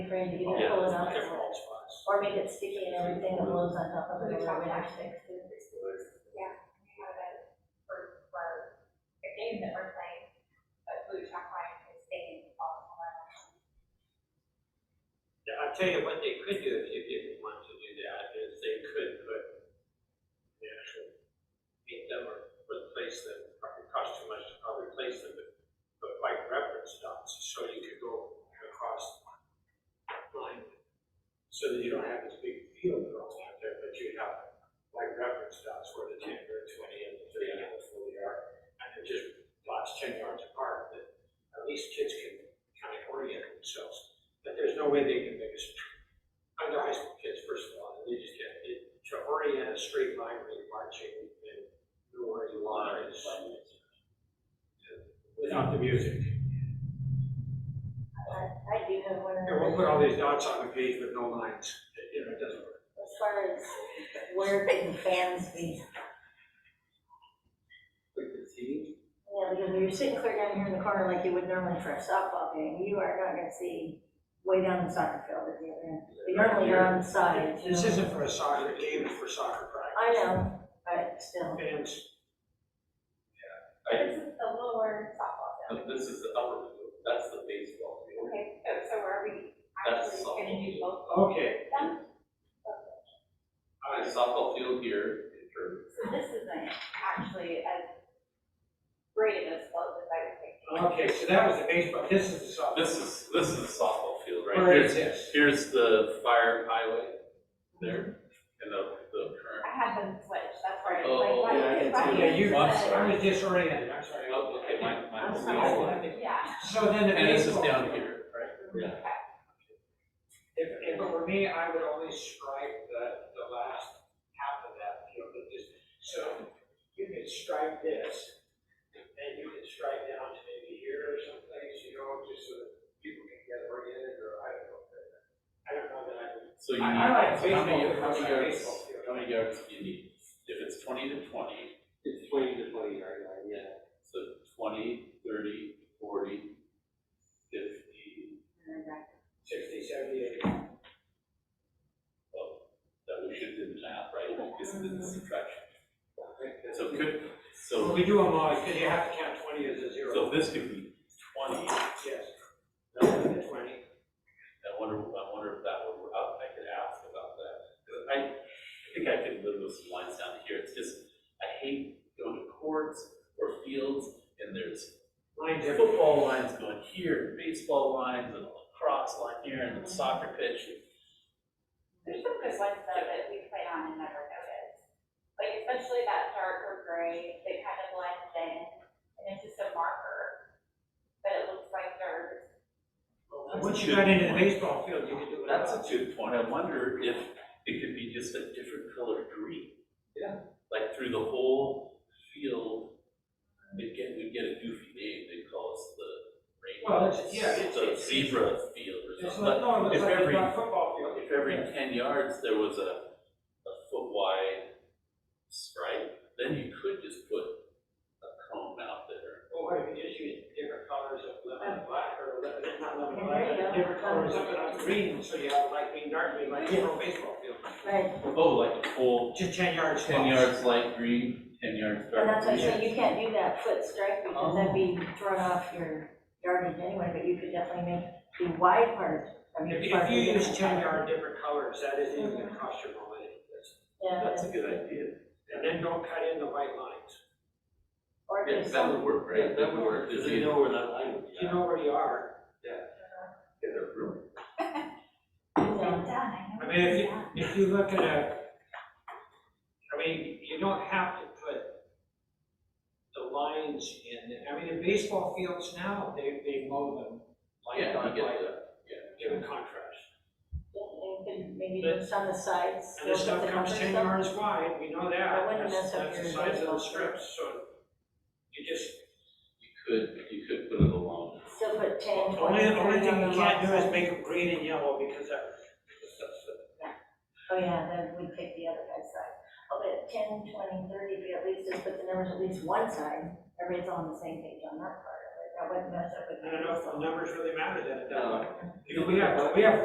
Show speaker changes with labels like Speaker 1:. Speaker 1: for him to either pull it
Speaker 2: Yeah,
Speaker 1: up
Speaker 2: different
Speaker 1: or,
Speaker 2: spots.
Speaker 1: or make it sticky and everything that blows on top of it.
Speaker 3: We
Speaker 1: or
Speaker 3: talked
Speaker 1: whatever.
Speaker 3: about six to six weeks, yeah, we have a, for, for the games that we're playing, but blue chalk line is taking all the time.
Speaker 2: Yeah, I'll tell you what they could do if you didn't want to do that, is they could put the actual, paint them or replace them, probably cost too much to probably replace them, but put white reference dots, so you could go across the line. So that you don't have this big field girls out there, but you have white reference dots where the ten or twenty and the thirty and the forty are. And they're just dots ten yards apart, that at least kids can kind of orient themselves but there's no way they can make a, str- under high school kids, first of all, they just can't, it, to orient a straight line when you're marching and know where you are is. Without the music.
Speaker 1: I I do have one
Speaker 2: And we'll
Speaker 1: other,
Speaker 2: put all these dots on the page with no lines, It- you know, it doesn't work.
Speaker 1: as far as where can fans be? Yeah, because when you're sitting clear down here in the corner like you would normally for a softball game, you are not gonna see way down the soccer field at the other end. You normally are on the side. you
Speaker 2: This
Speaker 1: know.
Speaker 2: isn't for a soccer game, it's for soccer practice.
Speaker 1: I know, but still.
Speaker 2: Fans,
Speaker 3: This is the lower softball field,
Speaker 4: This is the upper, that's the baseball field.
Speaker 3: okay, so, so are we
Speaker 4: That's
Speaker 3: actually gonna do both
Speaker 2: okay,
Speaker 3: of them?
Speaker 4: Uh, softball field here, or
Speaker 3: So this isn't actually as great of a slope as I was thinking.
Speaker 2: okay, so that was the baseball, this is the softball.
Speaker 4: This is, this is the softball field, right?
Speaker 2: Where is
Speaker 4: Here's-
Speaker 2: this?
Speaker 4: Here's the fire highway there, and the, the current.
Speaker 3: I had them switched, that's why I was
Speaker 4: Oh,
Speaker 3: like,
Speaker 4: yeah,
Speaker 3: why
Speaker 4: I
Speaker 3: is
Speaker 4: can see
Speaker 2: Yeah,
Speaker 3: it?
Speaker 2: you,
Speaker 4: I'm
Speaker 2: I
Speaker 4: sorry.
Speaker 2: was disoriented, I'm sorry.
Speaker 4: Oh, okay, my, my.
Speaker 1: I'm sorry.
Speaker 3: Yeah,
Speaker 2: So then the baseball.
Speaker 4: And this is down here,
Speaker 2: Right.
Speaker 4: yeah.
Speaker 2: If, if it were me, I would only strike the, the last half of that, you know, but just, so you could strike this, and you could strike down to maybe here or someplace, you know, just so that people can get oriented, or I don't know. but I don't know that I would.
Speaker 4: So you need,
Speaker 2: I- I like
Speaker 4: how many,
Speaker 2: baseball. I
Speaker 4: how many
Speaker 2: like
Speaker 4: yards,
Speaker 2: baseball field.
Speaker 4: how many yards do you need? If it's twenty to twenty,
Speaker 5: It's twenty to twenty yard line, yeah.
Speaker 4: so twenty, thirty, forty, fifty,
Speaker 2: Sixty, seventy, eighty.
Speaker 4: well, oh, that we should do the math, right? This is
Speaker 2: Mm-hmm.
Speaker 4: the subtraction.
Speaker 5: Right,
Speaker 4: So could, so.
Speaker 2: When we do them all, because you have to count twenty as a
Speaker 4: So
Speaker 2: zero.
Speaker 4: this could be twenty, I
Speaker 2: Yes. That would be Twenty.
Speaker 4: wonder, I wonder if that would, I I could ask about that. 'Cause I think I could live with some lines down here, it's just, I hate going to courts or fields, and there's
Speaker 2: Lines are-
Speaker 4: football lines going here, baseball lines, and lacrosse line here, and the soccer pitch.
Speaker 3: there's some good ones though that we play on and never notice. Like especially that dark or gray that kind of blends in and it's just a marker, but it looks like dirt.
Speaker 2: Once you got into the baseball field, you could do it.
Speaker 4: That's a good point, I wonder if it could be just a different color green.
Speaker 5: Yeah.
Speaker 4: Like through the whole field, we'd get, we'd get a goofy name, they'd call us the
Speaker 2: Well,
Speaker 4: rainbow.
Speaker 2: it's- yeah, it's-
Speaker 4: The zebra field or
Speaker 2: It's
Speaker 4: something,
Speaker 2: like, no,
Speaker 4: but
Speaker 2: it's
Speaker 4: if
Speaker 2: like
Speaker 4: every,
Speaker 2: a football field.
Speaker 4: if every ten yards there was a, a foot wide stripe, then you could just put a cone out there.
Speaker 2: Well, what if you just use different colors of lemon and black or lemon, not lemon and
Speaker 1: There you
Speaker 2: black,
Speaker 1: go.
Speaker 2: different colors of it on green, so you have like green, dark green, like a whole baseball field.
Speaker 1: Right,
Speaker 4: Oh, like a full
Speaker 2: Just ten yards.
Speaker 4: ten
Speaker 2: long.
Speaker 4: yards light green, ten yards
Speaker 1: and
Speaker 4: dark
Speaker 1: that's why I
Speaker 4: green.
Speaker 1: said you can't do that foot strike because that'd be
Speaker 2: Oh.
Speaker 1: drawn off your yardage anyway, but you could definitely make the wide part of your.
Speaker 2: If you, if
Speaker 1: parking
Speaker 2: you use
Speaker 1: lot.
Speaker 2: ten yard different colors, that isn't even gonna cost you more money. That's-
Speaker 1: Yeah,
Speaker 4: That's a good idea.
Speaker 2: And then don't cut in the white lines.
Speaker 1: or
Speaker 4: Yeah,
Speaker 1: just
Speaker 4: that
Speaker 1: some,
Speaker 4: would work, right?
Speaker 5: that would work, because you know where that line would be.
Speaker 2: You know where you are.
Speaker 1: you know,
Speaker 3: done, I
Speaker 2: I mean, if you, if you look at a, I mean, you don't have to put the lines in, I mean, in baseball fields now, they, they mow them like,
Speaker 4: Yeah, I
Speaker 2: like,
Speaker 4: get
Speaker 2: like,
Speaker 4: that, yeah.
Speaker 2: given contrast.
Speaker 1: and can maybe
Speaker 2: But-
Speaker 1: just on the sides.
Speaker 2: And the
Speaker 1: look at
Speaker 2: stuff
Speaker 1: the
Speaker 2: comes
Speaker 1: numbers
Speaker 2: ten
Speaker 1: up.
Speaker 2: yards wide, we know
Speaker 1: I
Speaker 2: that,
Speaker 1: wouldn't mess
Speaker 2: that's,
Speaker 1: up
Speaker 2: that's the
Speaker 1: your
Speaker 2: size of the
Speaker 1: baseball
Speaker 2: strips, so you just,
Speaker 4: You could, you could put it along.
Speaker 1: Still put ten,
Speaker 2: only,
Speaker 1: twenty,
Speaker 2: the only
Speaker 1: thirty
Speaker 2: thing
Speaker 1: on
Speaker 2: you
Speaker 1: the
Speaker 2: can't
Speaker 1: left
Speaker 2: do is
Speaker 1: side.
Speaker 2: make them green and yellow, because that, that's,
Speaker 1: Oh, yeah, then we pick the other guy's side. Oh, but ten, twenty, thirty, if you at least just put the numbers at least one side, everybody's all on the same page on that part of it. That wouldn't mess up with.
Speaker 2: I don't know if the numbers really matter then, at that
Speaker 5: No.
Speaker 2: point. You know, we have, we have